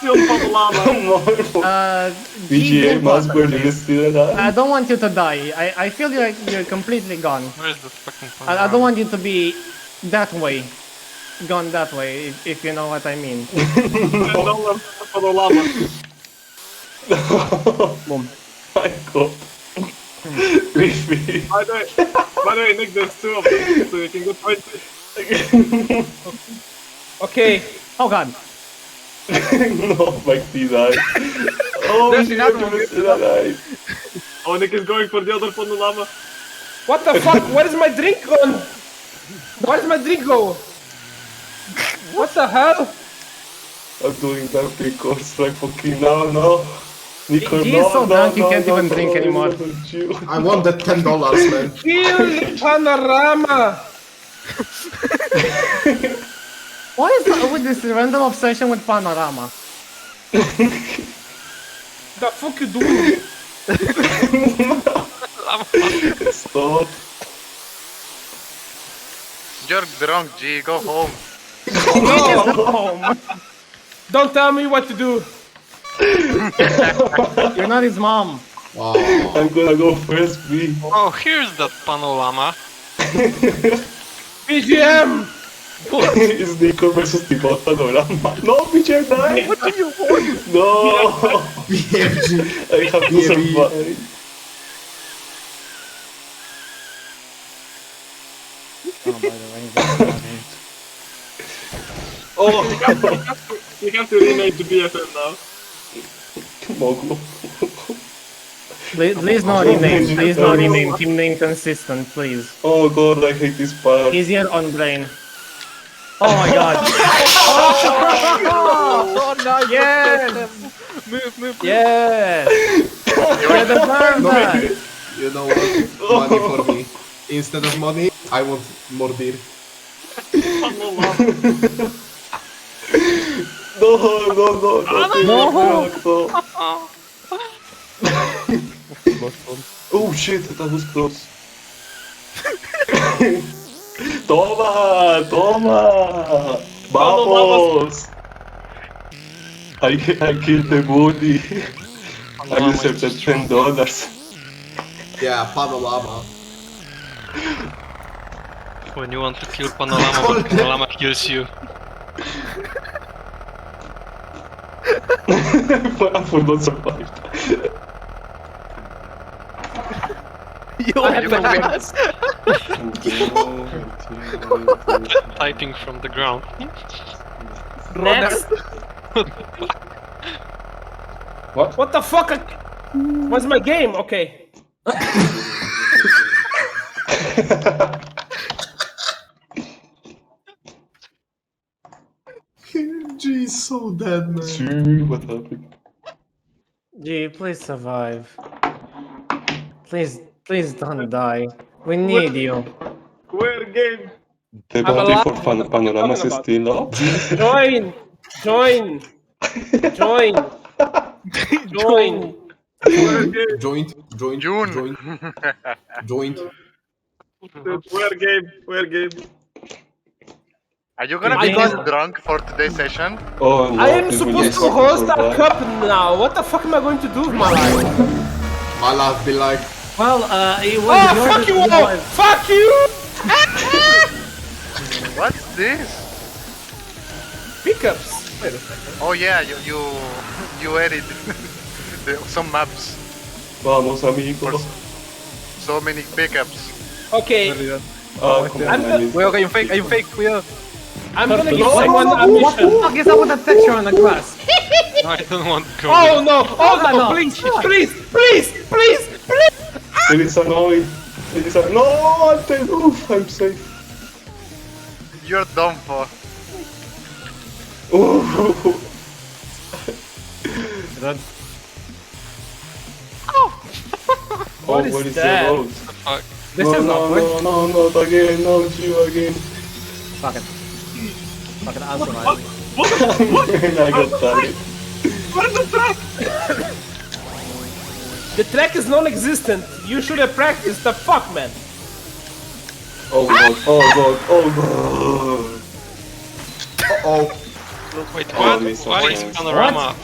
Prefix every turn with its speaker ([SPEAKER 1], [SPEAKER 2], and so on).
[SPEAKER 1] llama.
[SPEAKER 2] Uh,
[SPEAKER 3] VGA
[SPEAKER 2] Google
[SPEAKER 3] mouse
[SPEAKER 2] button,
[SPEAKER 3] bird
[SPEAKER 2] please.
[SPEAKER 3] is still alive.
[SPEAKER 2] I don't want you to die. I, I feel you're, you're completely gone.
[SPEAKER 4] Where is the fucking point?
[SPEAKER 2] I, I don't want you to be that way. Gone that way, if, if you know what I mean.
[SPEAKER 1] Não leva para o lama.
[SPEAKER 2] Ah.
[SPEAKER 3] Boom. My god. Creepy.
[SPEAKER 1] By the way, by the way, Nick, there's two of them, so you can go try to...
[SPEAKER 5] Okay,
[SPEAKER 2] Oh god.
[SPEAKER 3] no, like these eyes. Oh,
[SPEAKER 5] There's
[SPEAKER 3] VGA
[SPEAKER 5] another one.
[SPEAKER 3] is still alive.
[SPEAKER 1] Oh, Nick is going for the other Ponulama.
[SPEAKER 5] what the fuck? Where is my drink gone? Where is my drink go? What the hell?
[SPEAKER 3] I'm doing that because like fucking now, no. Nico,
[SPEAKER 2] He is
[SPEAKER 3] no,
[SPEAKER 2] so
[SPEAKER 3] no,
[SPEAKER 2] drunk he
[SPEAKER 3] no,
[SPEAKER 2] can't
[SPEAKER 3] no,
[SPEAKER 2] even drink
[SPEAKER 3] no,
[SPEAKER 2] anymore.
[SPEAKER 3] don't you.
[SPEAKER 6] I want that ten dollars, man.
[SPEAKER 5] Kill the panorama!
[SPEAKER 2] What is up with this random obsession with panorama?
[SPEAKER 5] The fuck you doing?
[SPEAKER 3] Stop.
[SPEAKER 4] You're drunk, G. Go home.
[SPEAKER 2] It is home.
[SPEAKER 5] Oh, Don't tell me what to do.
[SPEAKER 2] You're not his mom.
[SPEAKER 6] Wow.
[SPEAKER 3] I'm gonna go first, B.
[SPEAKER 4] Oh, here's that panorama.
[SPEAKER 5] BGM!
[SPEAKER 3] it's Nico versus Tibota no Rama. No, BJ died! What do you want? No!
[SPEAKER 6] BFG.
[SPEAKER 3] I have to
[SPEAKER 6] Yeah,
[SPEAKER 3] survive. Oh,
[SPEAKER 1] You have to rename to BFM now.
[SPEAKER 3] Mogul.
[SPEAKER 2] Please, please no rename. Please no rename. Team name consistent, please.
[SPEAKER 3] Oh god, I hate this part.
[SPEAKER 2] Easier on brain. Oh my god.
[SPEAKER 5] Oh no,
[SPEAKER 2] Yes!
[SPEAKER 4] Move, move.
[SPEAKER 2] Yes! You're the barber!
[SPEAKER 6] You know what? Money for me. Instead of money, I want more beer.
[SPEAKER 3] No, no, no, no. No! no. oh shit, that was close. toma, toma! Vamos! I, I killed the body. I deserve the ten dollars.
[SPEAKER 6] Yeah, panorama.
[SPEAKER 4] When you want to kill panorama, panorama kills you.
[SPEAKER 3] I will not survive.
[SPEAKER 4] Typing from the ground.
[SPEAKER 5] What the fuck? What's my game? Okay.
[SPEAKER 6] G is so dead, man.
[SPEAKER 3] Gee, what happened?
[SPEAKER 2] Gee, please survive. Please, please don't die. We need you.
[SPEAKER 1] Where game?
[SPEAKER 3] The
[SPEAKER 5] I'm
[SPEAKER 3] body
[SPEAKER 5] alive.
[SPEAKER 3] for pan- panoramas is still up.
[SPEAKER 5] Join! Join! Join! Join!
[SPEAKER 6] Joint, joint,
[SPEAKER 7] June.
[SPEAKER 6] joint, joint.
[SPEAKER 1] Where game? Where game?
[SPEAKER 7] Are you gonna
[SPEAKER 5] I
[SPEAKER 7] be this
[SPEAKER 5] don't-
[SPEAKER 7] drunk for today's session?
[SPEAKER 3] Oh, no,
[SPEAKER 5] I am
[SPEAKER 3] this
[SPEAKER 5] supposed to
[SPEAKER 3] will
[SPEAKER 5] host a
[SPEAKER 3] survive.
[SPEAKER 5] cup now. What the fuck am I going to do with my life?
[SPEAKER 6] My life be like,
[SPEAKER 2] Well, uh, it was
[SPEAKER 5] Oh,
[SPEAKER 2] your-
[SPEAKER 5] fuck you
[SPEAKER 2] it
[SPEAKER 5] all!
[SPEAKER 2] was-
[SPEAKER 5] Fuck you!
[SPEAKER 7] What's this?
[SPEAKER 5] Pickups.
[SPEAKER 7] Oh yeah, you you you added the, some maps,
[SPEAKER 3] Vamos, amigos.
[SPEAKER 7] so many pickups.
[SPEAKER 5] Okay,
[SPEAKER 3] Ah, como
[SPEAKER 5] I'm
[SPEAKER 3] na lista.
[SPEAKER 8] Kuya, yung fake, yung fake, kuya.
[SPEAKER 5] I'm gonna give someone a mission.
[SPEAKER 2] Fuck is up with that texture on the glass?
[SPEAKER 4] No, I don't want to go.
[SPEAKER 5] Oh no! Oh
[SPEAKER 2] no,
[SPEAKER 5] no!
[SPEAKER 2] no.
[SPEAKER 5] Please! Please! Please! Please! Please!
[SPEAKER 3] There is a noise. There is a... No, I'm safe. Oof, I'm safe.
[SPEAKER 7] You're done for.
[SPEAKER 3] Ooh. oh, what is
[SPEAKER 5] that?
[SPEAKER 3] the road?
[SPEAKER 4] fuck?
[SPEAKER 5] This
[SPEAKER 3] no,
[SPEAKER 5] is
[SPEAKER 3] no,
[SPEAKER 5] awkward.
[SPEAKER 3] no, no, not again, no, you again.
[SPEAKER 2] Fuck it. Fuck it, I'm surviving.
[SPEAKER 3] Man, I got tired.
[SPEAKER 5] The track is non-existent. You should have practiced. The fuck, man.
[SPEAKER 3] Oh god, oh god, oh god.
[SPEAKER 6] oh.
[SPEAKER 4] Wait,
[SPEAKER 3] Oh,
[SPEAKER 4] what?
[SPEAKER 3] Mr.
[SPEAKER 4] Why is
[SPEAKER 3] Jones.
[SPEAKER 4] panorama?